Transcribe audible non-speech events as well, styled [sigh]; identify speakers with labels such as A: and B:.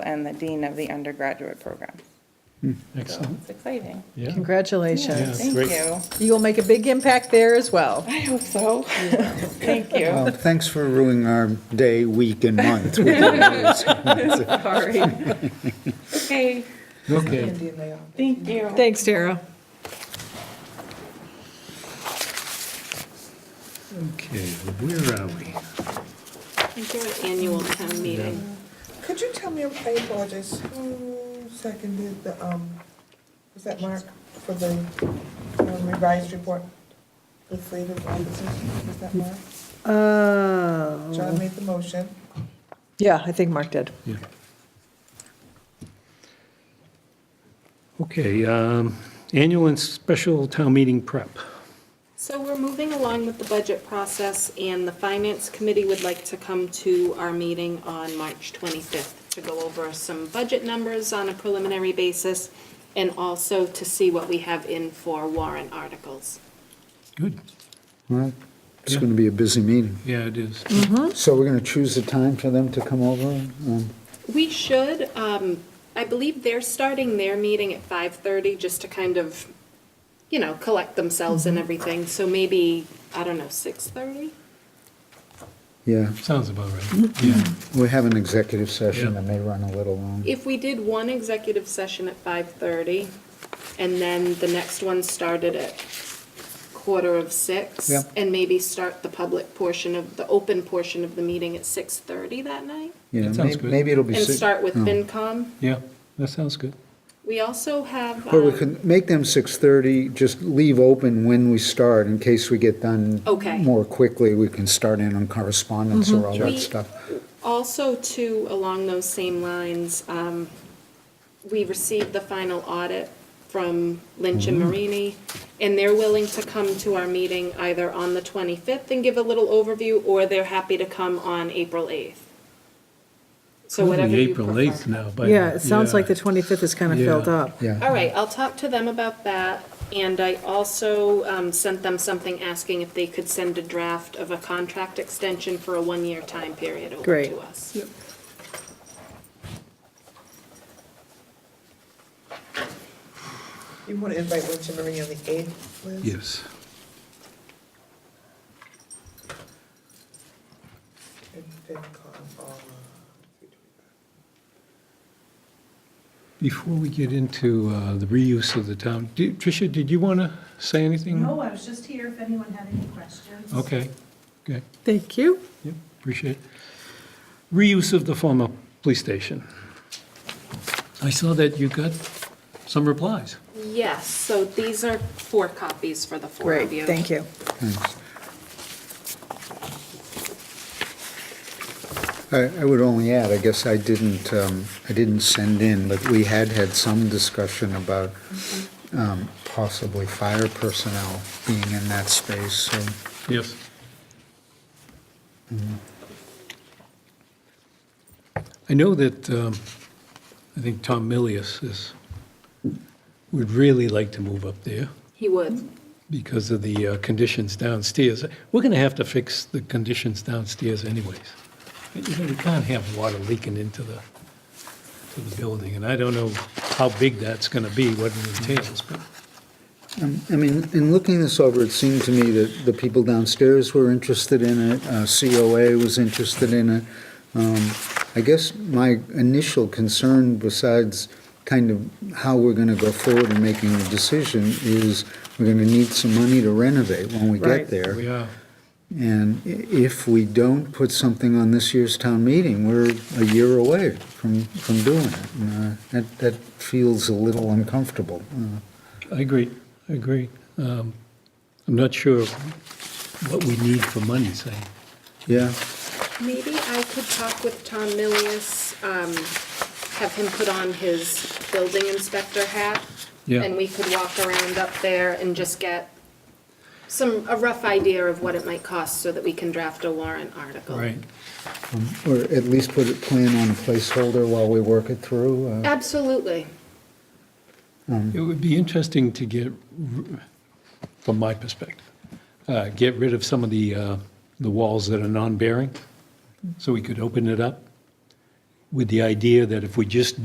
A: and the dean of the undergraduate program.
B: Excellent,
A: It's exciting.
B: Oh. yeah.
C: Congratulations.
A: Thank
B: great.
A: you.
C: You will make a big impact there as well.
A: I hope so. [laughs] Thank you.
D: Well, thanks for ruining our day, week, and month. with your
E: [laughs]
D: words.
A: Sorry. Okay,
B: Okay,
A: thank you.
C: Thanks, Tara.
B: okay, where are we?
E: annual town meeting.
F: Could you tell me, I apologize, who seconded the, um, was that Mark for the um, revised report? The slate of officers, was that Mark? John
C: Oh.
F: made the motion.
C: Yeah, I think Mark did.
B: Yeah. Okay, um, annual and special town meeting prep.
E: So we're moving along with the budget process, and the Finance Committee would like to come to our meeting on March 25th to go over some budget numbers on a preliminary basis, and also to see what we have in for warrant articles.
B: Good.
D: Well, It's going to be a busy meeting.
B: Yeah, it is.
D: So we're going to choose a time for them to come over? Um,
E: We should, um, I believe they're starting their meeting at 5:30, just to kind of, you know, collect themselves and everything, so maybe, I don't know, 6:30?
D: Yeah,
B: Sounds about right. Yeah,
D: we have an executive session
B: Yeah.
D: that may run a little long.
E: If we did one executive session at 5:30, and then the next one started at quarter of six,
D: Yeah.
E: and maybe start the public portion of, the open portion of the meeting at 6:30 that night,
D: You
B: That
D: know,
B: sounds
D: may-
B: good.
D: Maybe it'll be.
E: and
D: six-
E: start with
D: oh.
E: FinCom.
B: yeah, that sounds good.
E: We also have,
D: Or we
E: um,
D: can make them 6:30, just leave open when we start, in case we get done
E: Okay. Mm-hmm.
D: more quickly, we can start in on correspondence or all
E: We-
D: that stuff.
E: also too, along those same lines, um, we received the final audit from Lynch
B: Mm-hmm.
E: and Marini, and they're willing to come to our meeting either on the 25th and give a little overview, or they're happy to come on April 8th. So whatever
B: Probably
E: you
B: April
E: prefer.
B: 8th now, but.
C: Yeah, it sounds like the
B: yeah.
C: 25th is kind of
B: Yeah.
C: filled up.
D: Yeah,
E: All right, I'll talk to them about that, and I also um, sent them something asking if they could send a draft of a contract extension for a one-year time period over
C: Great.
E: to us.
F: You want to invite Lynch and Marie on the eighth, Liz?
B: Yes,
F: And FinCom on, uh,
B: before we get into uh, the reuse of the town, did- Tricia, did you want to say anything?
G: No, I was just here if anyone had any questions.
B: Okay, okay.
C: Thank you.
B: Yep, appreciate it. Reuse of the former police station. I saw that you got some replies.
E: Yes, so these are four copies for the four
C: Great,
E: of you.
C: thank you.
D: thanks. I, I would only add, I guess I didn't, um, I didn't send in, but we had had some discussion about um, possibly fire personnel being in that space, so
B: Yes. I know that, um, I think Tom Milius is, would really like to move up there
E: He would.
B: because of the uh, conditions downstairs. We're going to have to fix the conditions downstairs anyways. You know, we can't have water leaking into the, to the building, and I don't know how big that's going to be, what it entails, but
D: Um, I mean, in looking this over, it seemed to me that the people downstairs were interested in it, uh, COA was interested in it. Um, I guess my initial concern, besides kind of how we're going to go forward in making the decision, is we're going to need some money to renovate when we
C: Right.
D: get there.
B: we are,
D: And i- if we don't put something on this year's town meeting, we're a year away from, from doing it. And, uh, That, that feels a little uncomfortable. Uh,
B: I agree, I agree. Um, I'm not sure what we need for money, say.
D: Yeah,
E: Maybe I could talk with Tom Milius, um, have him put on his building inspector hat.
B: Yeah.
E: And we could walk around up there and just get some, a rough idea of what it might cost so that we can draft a warrant article.
B: Right.
D: or at least put a plan on a placeholder while we work it through. uh,
E: Absolutely.
B: It would be interesting to get, r- from my perspective, uh, get rid of some of the, uh, the walls that are non-bearing, so we could open it up with the idea that if we just